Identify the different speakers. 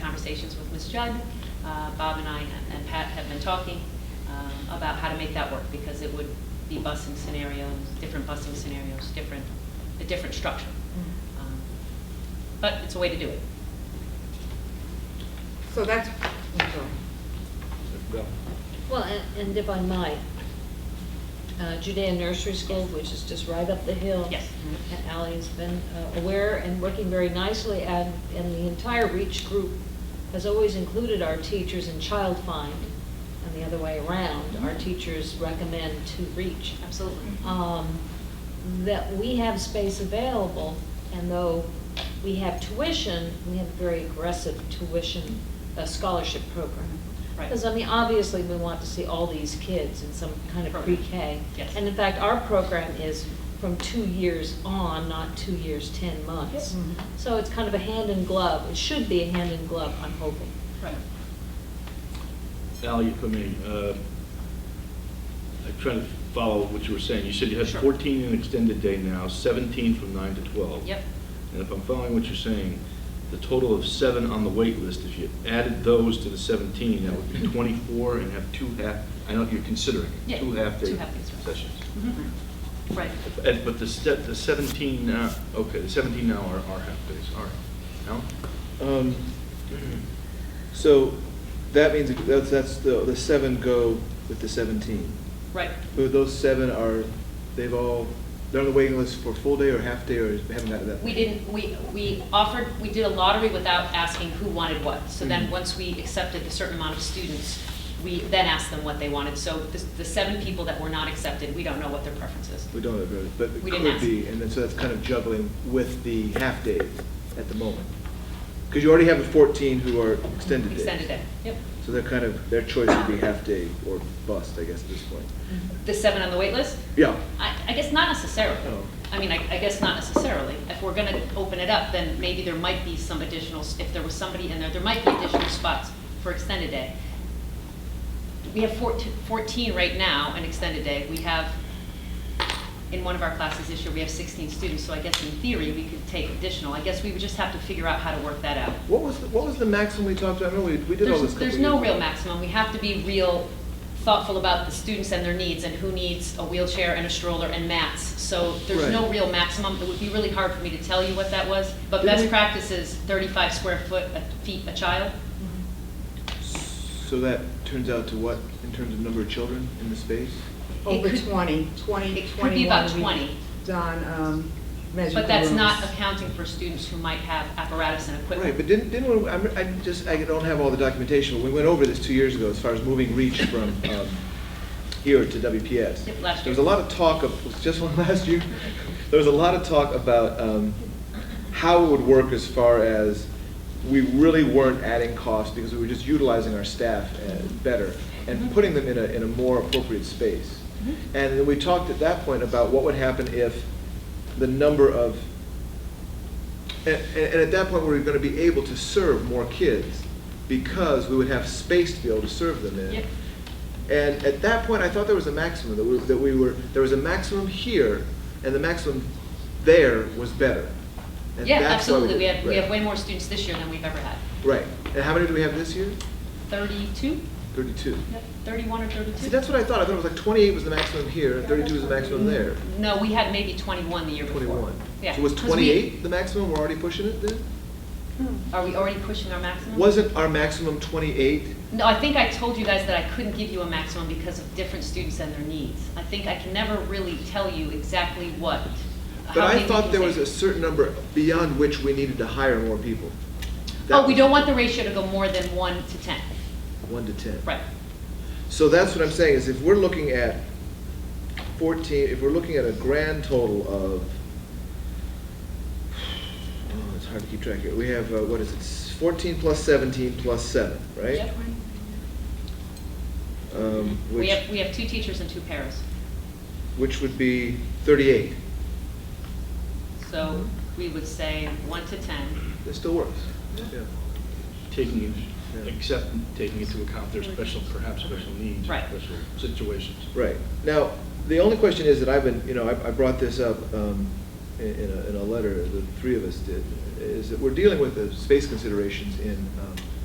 Speaker 1: conversations with Ms. Judd. Uh, Bob and I and Pat have been talking um, about how to make that work, because it would be busing scenarios, different busing scenarios, different, a different structure. Um, But it's a way to do it.
Speaker 2: So that's, I'm sorry.
Speaker 3: Well,
Speaker 4: Well, and- and if I might, uh, Judean Nursery School, which is just right up the hill.
Speaker 1: Yes.
Speaker 4: And Ally's been uh, aware and working very nicely, and, and the entire REACH group has always included our teachers in Child Find, and the other way around, our teachers recommend to REACH
Speaker 1: Mm-hmm. Absolutely.
Speaker 4: um, that we have space available, and though we have tuition, we have a very aggressive tuition uh, scholarship program.
Speaker 1: Right.
Speaker 4: Because, I mean, obviously, we want to see all these kids in some kind of
Speaker 1: Program.
Speaker 4: pre-K.
Speaker 1: Yes.
Speaker 4: And in fact, our program is from two years on, not two years, 10 months.
Speaker 1: Mm-hmm.
Speaker 2: Yep. Mhm.
Speaker 4: So it's kind of a hand in glove, it should be a hand in glove, I'm hoping.
Speaker 1: Right.
Speaker 3: Al, you put me, uh, I'm trying to follow what you were saying. You said you had
Speaker 1: Sure.
Speaker 3: 14 in extended day now, 17 from 9 to 12.
Speaker 1: Yep.
Speaker 3: And if I'm following what you're saying, the total of seven on the wait list, if you added those to the 17, that would be 24 and have two half, I know you're considering, it,
Speaker 1: Yeah,
Speaker 3: two half-day
Speaker 1: two half-days, right.
Speaker 3: sessions.
Speaker 1: Mhm. Right.
Speaker 3: And- But the step, the 17, now- okay, the 17 now are are half-days, all right. Al?
Speaker 5: Um, So that means, it- that's, that's the, the seven go with the seventeen.
Speaker 1: Right.
Speaker 5: But those seven are, they've all, they're on the waiting list for full day or half day or haven't gotten that?
Speaker 1: We didn't, we, we offered, we did a lottery without asking who wanted what. So then,
Speaker 5: Mhm.
Speaker 1: once we accepted a certain amount of students, we then asked them what they wanted. So the, the seven people that were not accepted, we don't know what their preference is.
Speaker 5: We don't have, it, but it
Speaker 1: We didn't
Speaker 5: could
Speaker 1: ask.
Speaker 5: be, and then, so that's kind of juggling with the half days at the moment. Because you already have the fourteen who are extended days.
Speaker 1: Extended day, yep.
Speaker 5: So they're kind of, their choice would be half day or bust, I guess, at this point.
Speaker 1: The seven on the wait list?
Speaker 5: Yeah.
Speaker 1: I, I guess not necessarily.
Speaker 5: Oh.
Speaker 1: I mean, I, I guess not necessarily. If we're gonna open it up, then maybe there might be some additional, if there was somebody in there, there might be additional spots for extended day. We have 14 14 right now in extended day. We have, in one of our classes this year, we have sixteen students, so I guess in theory, we could take additional. I guess we would just have to figure out how to work that out.
Speaker 5: What was, the- what was the maximum we talked about? I remember we, we did all this.
Speaker 1: There's,
Speaker 5: a
Speaker 1: there's
Speaker 5: couple
Speaker 1: no
Speaker 5: years
Speaker 1: real
Speaker 5: ago.
Speaker 1: maximum. We have to be real thoughtful about the students and their needs and who needs a wheelchair and a stroller and mats. So there's no
Speaker 5: Right.
Speaker 1: real maximum. It would be really hard for me to tell you what that was. But
Speaker 5: Didn't
Speaker 1: best
Speaker 5: we-
Speaker 1: practice is thirty-five square foot, a feet a child.
Speaker 5: So that turns out to what, in terms of number of children in the space?
Speaker 2: Over
Speaker 1: could-
Speaker 2: 20, 20,
Speaker 1: it could be
Speaker 2: 21.
Speaker 1: about
Speaker 2: we've
Speaker 1: 20.
Speaker 2: Done, um, measured
Speaker 1: But that's
Speaker 2: rooms.
Speaker 1: not accounting for students who might have apparatus and equipment.
Speaker 5: Right, but didn't, didn't, we- I'm, I just, I don't have all the documentation, but we went over this two years ago as far as moving reach from, um, here to WPS.
Speaker 1: Yep, last
Speaker 5: There was
Speaker 1: year.
Speaker 5: a lot of talk of, was it just one last year, there was a lot of talk about, um, how it would work as far as we really weren't adding cost because we were just utilizing our staff uh, better
Speaker 1: Mm-hmm.
Speaker 5: and putting them in a, in a more appropriate space.
Speaker 1: Mhm.
Speaker 5: And then we talked at that point about what would happen if the number of and, and and at that point, we were gonna be able to serve more kids because we would have space to be able to serve them in.
Speaker 1: Yep.
Speaker 5: And at that point, I thought there was a maximum, that we, that we were, there was a maximum here and the maximum there was better. And
Speaker 1: Yeah,
Speaker 5: that's why
Speaker 1: absolutely.
Speaker 5: did
Speaker 1: We
Speaker 5: it.
Speaker 1: have, we have
Speaker 5: Right.
Speaker 1: way more students this year than we've ever had.
Speaker 5: Right. And how many do we have this year?
Speaker 1: Thirty-two?
Speaker 5: Thirty-two.
Speaker 1: Yep, Thirty-one or thirty-two?
Speaker 5: See, that's what I thought. I thought it was like twenty-eight was the maximum here and thirty-two was the maximum there.
Speaker 1: No, we had maybe twenty-one the year before.
Speaker 5: Twenty-one.
Speaker 1: Yeah.
Speaker 5: So was
Speaker 1: 'cause we- Mm-hmm.
Speaker 5: twenty-eight the maximum? We're already pushing it then?
Speaker 1: Are we already pushing our maximum?
Speaker 5: Wasn't our maximum twenty-eight?
Speaker 1: No, I think I told you guys that I couldn't give you a maximum because of different students and their needs. I think I can never really tell you exactly what.
Speaker 5: But
Speaker 1: how many
Speaker 5: I
Speaker 1: we
Speaker 5: thought
Speaker 1: can
Speaker 5: there was
Speaker 1: take.
Speaker 5: a certain number beyond which we needed to hire more people. That
Speaker 1: Oh, we
Speaker 5: was
Speaker 1: don't want the ratio to go more than one to ten.
Speaker 5: One to ten.
Speaker 1: Right,
Speaker 5: So that's what I'm saying, is if we're looking at fourteen, if we're looking at a grand total of, oh, it's hard to keep track here, we have, uh, what is it, fourteen plus seventeen plus seven, right?
Speaker 1: Yep.
Speaker 5: Um,
Speaker 1: We
Speaker 5: which-
Speaker 1: have, we have two teachers and two paras.
Speaker 5: Which would be thirty-eight.
Speaker 1: So we would say one to ten.
Speaker 5: That still works.
Speaker 1: Mm-hmm.
Speaker 5: Yeah.
Speaker 3: taking, in-
Speaker 5: Yeah.
Speaker 3: except taking into account their special, perhaps special needs, or
Speaker 1: Right.
Speaker 3: special situations.
Speaker 5: Right. Now, the only question is that I've been, you know, I, I brought this up um, in, in a, in a letter, the three of us did, is that we're dealing with the space considerations in um,